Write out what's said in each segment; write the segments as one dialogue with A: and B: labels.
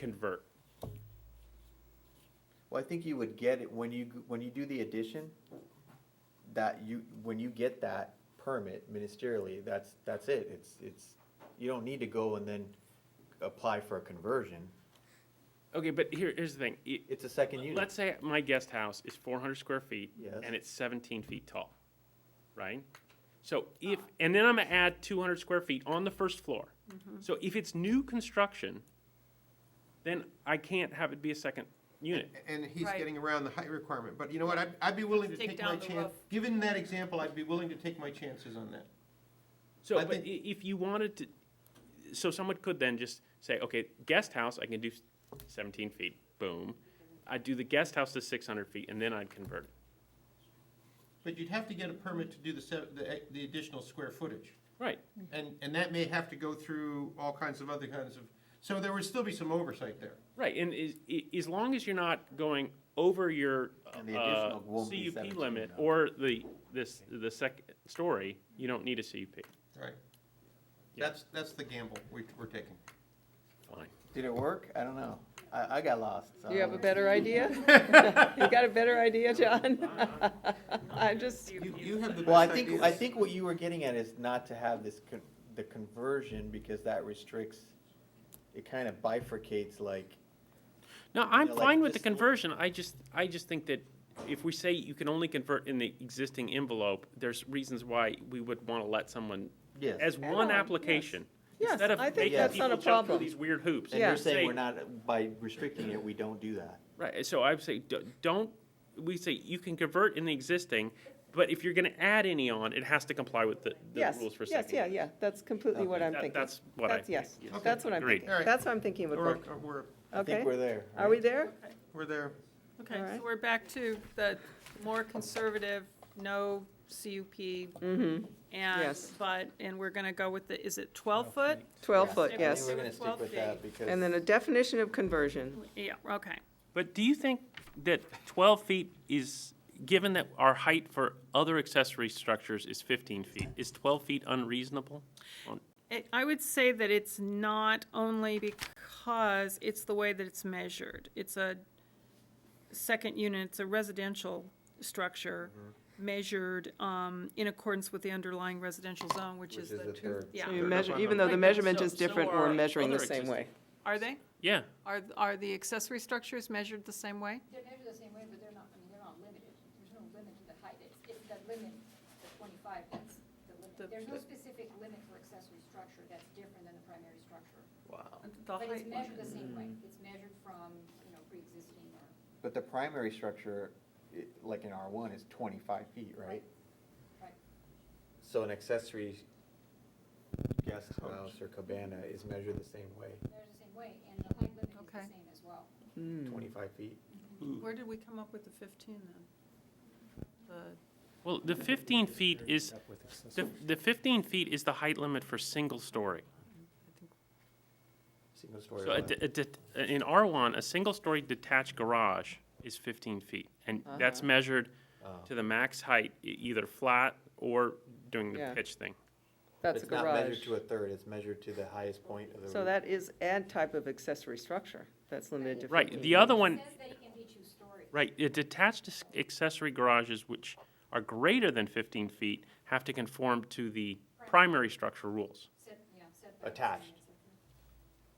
A: convert.
B: Well, I think you would get it when you, when you do the addition, that you, when you get that permit ministerially, that's, that's it. It's, it's, you don't need to go and then apply for a conversion.
A: Okay, but here, here's the thing. Y-
B: It's a second unit.
A: Let's say my guest house is four hundred square feet.
B: Yes.
A: And it's seventeen feet tall, right? So if, and then I'm gonna add two hundred square feet on the first floor. So if it's new construction, then I can't have it be a second unit.
C: And he's
D: Right.
C: getting around the height requirement, but you know what, I'd, I'd be willing to
D: Take
C: take my
D: down the
C: chance,
D: roof.
C: given that example, I'd be willing to take my chances on that.
A: So,
C: I
A: but i-
C: think-
A: if you wanted to, so someone could then just say, okay, guest house, I can do seventeen feet, boom. I'd do the guest house to six hundred feet and then I'd convert it.
C: But you'd have to get a permit to do the, se- the, the additional square footage.
A: Right.
D: Mm-hmm.
C: And, and that may have to go through all kinds of other kinds of, so there would still be some oversight there.
A: Right, and is, i- as long as you're not going over your
B: And the
A: uh,
B: additional won't be
A: CUP
B: 17
A: limit
B: now.
A: or the, this, the second story, you don't need a CUP.
C: Right.
A: Yeah.
C: That's, that's the gamble we, we're taking.
A: Fine.
B: Did it work? I don't know. I, I got lost. so-
E: Do you have a better idea? You got a better idea, John? I'm just,
C: You, you have the
B: Well, I
C: best
B: think, I
C: ideas.
B: think what you were getting at is not to have this, con- the conversion, because that restricts, it kind of bifurcates like,
A: No, I'm
B: know, like
A: fine with the
B: this little-
A: conversion, I just, I just think that if we say you can only convert in the existing envelope, there's reasons why we would want to let someone,
B: yes.
A: as one
E: on,
A: application.
E: yes.
A: instead of
E: Yes, I think
A: making
B: that's
A: people
E: not
A: jump
E: a
A: through
E: problem.
A: These weird hoops.
B: And
E: Yeah.
B: you're saying
A: Say-
B: we're not, by restricting it, we don't do that.
A: Right, so I would say, d- don't, we say you can convert in the existing, but if you're gonna add any on, it has to comply with the, the
E: yes,
A: rules for
E: yes,
A: second.
E: yeah, yeah, that's completely what I'm
A: That-
E: thinking.
A: That's what I.
E: That's- Yes,
A: think.
E: that's what I'm
A: Agreed.
E: thinking.
C: All right.
E: That's what I'm thinking would
C: Or,
E: work.
C: or we're,
B: I
E: Okay,
B: think we're there.
E: are we there?
C: we're there.
D: Okay,
E: Alright.
D: so we're back to the more conservative, no CUP,
E: Mm-hmm,
D: and,
E: Yes.
D: but, and we're gonna go with the, is it twelve foot?
E: twelve
B: Yeah.
E: foot,
D: Stick
B: I
E: yes.
B: think we're gonna stick with that,
E: And
B: because
E: then a definition of conversion.
D: Yeah, okay.
A: But do you think that twelve feet is, given that our height for other accessory structures is fifteen feet, is twelve feet unreasonable?
D: It- I would say that it's not only because it's the way that it's measured. It's a second unit, it's a residential structure measured um, in accordance with the underlying residential zone, which
B: Which
D: is
B: is
D: the
B: the
D: two,
B: third.
D: yeah.
E: So you measure, even though
A: Right,
E: the
A: but
E: measurement
A: so-
E: is
A: so
E: different,
A: are
E: we're measuring the
A: other
E: same way.
D: Are they?
A: Yeah,
D: Are, are the accessory structures measured the same way?
F: They're measured the same way, but they're not, I mean, they're not limited. There's no limit to the height. It's, it's the limit, the twenty-five, that's
D: The-
F: the limit. There's no
D: the-
F: specific limit for accessory structure that's different than the primary structure.
D: The
F: But it's
D: height-
F: measured the same way. It's measured from, you know, pre-existing or.
B: but the primary structure, i- like in R one, is twenty-five feet, right?
F: Right. Right.
B: So an accessory guest house or cabana is measured the same way,
F: They're the same way, and the height limit is
D: Okay.
F: the same as well.
E: Mm. Hmm.
B: twenty-five feet.
D: Where did we come up with the fifteen then? The,
A: well, the fifteen feet is, the, the fifteen feet is the height limit for single story.
B: Single story.
A: So a
B: lot.
A: de- a det- in R1, a single-story detached garage is 15 feet, and
E: Uh-huh.
A: that's measured
B: Oh.
A: to the max height, e- either flat or doing the
E: Yeah.
A: pitch thing.
E: That's a
B: It's not measured
E: garage.
B: to a third, it's measured to the highest point of the roof.
E: So that is a type of accessory structure that's limited to
A: Right,
E: 15.
A: the other one,
F: It says that it can be two stories.
A: right, uh, detached ac- accessory garages which are greater than 15 feet have to conform to the primary structure rules.
F: Set, yeah, setbacks and
B: Attached.
F: et cetera.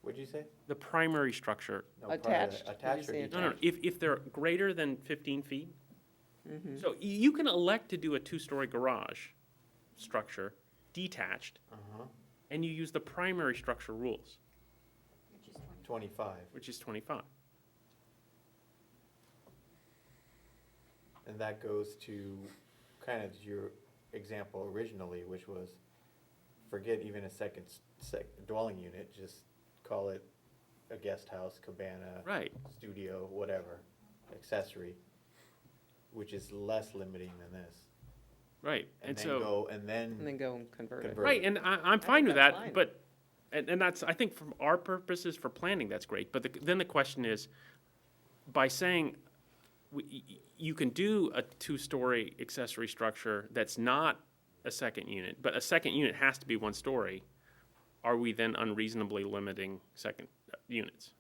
B: What'd you say?
A: The primary structure,
B: No, part of the-
E: Attached. Did you
B: Attached or
E: say
A: no, e- no,
B: detached?
A: if, if they're greater than 15 feet. So y- you can elect to do a two-story garage structure detached,
B: Uh-huh,
A: and you use the primary structure rules.
F: Which is twenty.
B: twenty-five,
A: which is 25.
B: and that goes to kind of your example originally, which was, forget even a second, s- sec, dwelling unit, just call it a guest house, cabana,
A: Right.
B: studio, whatever, accessory, which is less limiting than this.
A: Right. And,
B: And then
A: so,
B: go, and
E: And then
B: then
E: go and convert it.
B: convert.
A: right. And I, I'm fine with that.
E: that's fine.
A: But, and, and that's, I think from our purposes for planning, that's great. But the, then the question is by saying we, y- y- you can do a two story accessory structure that's not a second unit, but a second unit has to be one story, are we then unreasonably limiting second uh, units?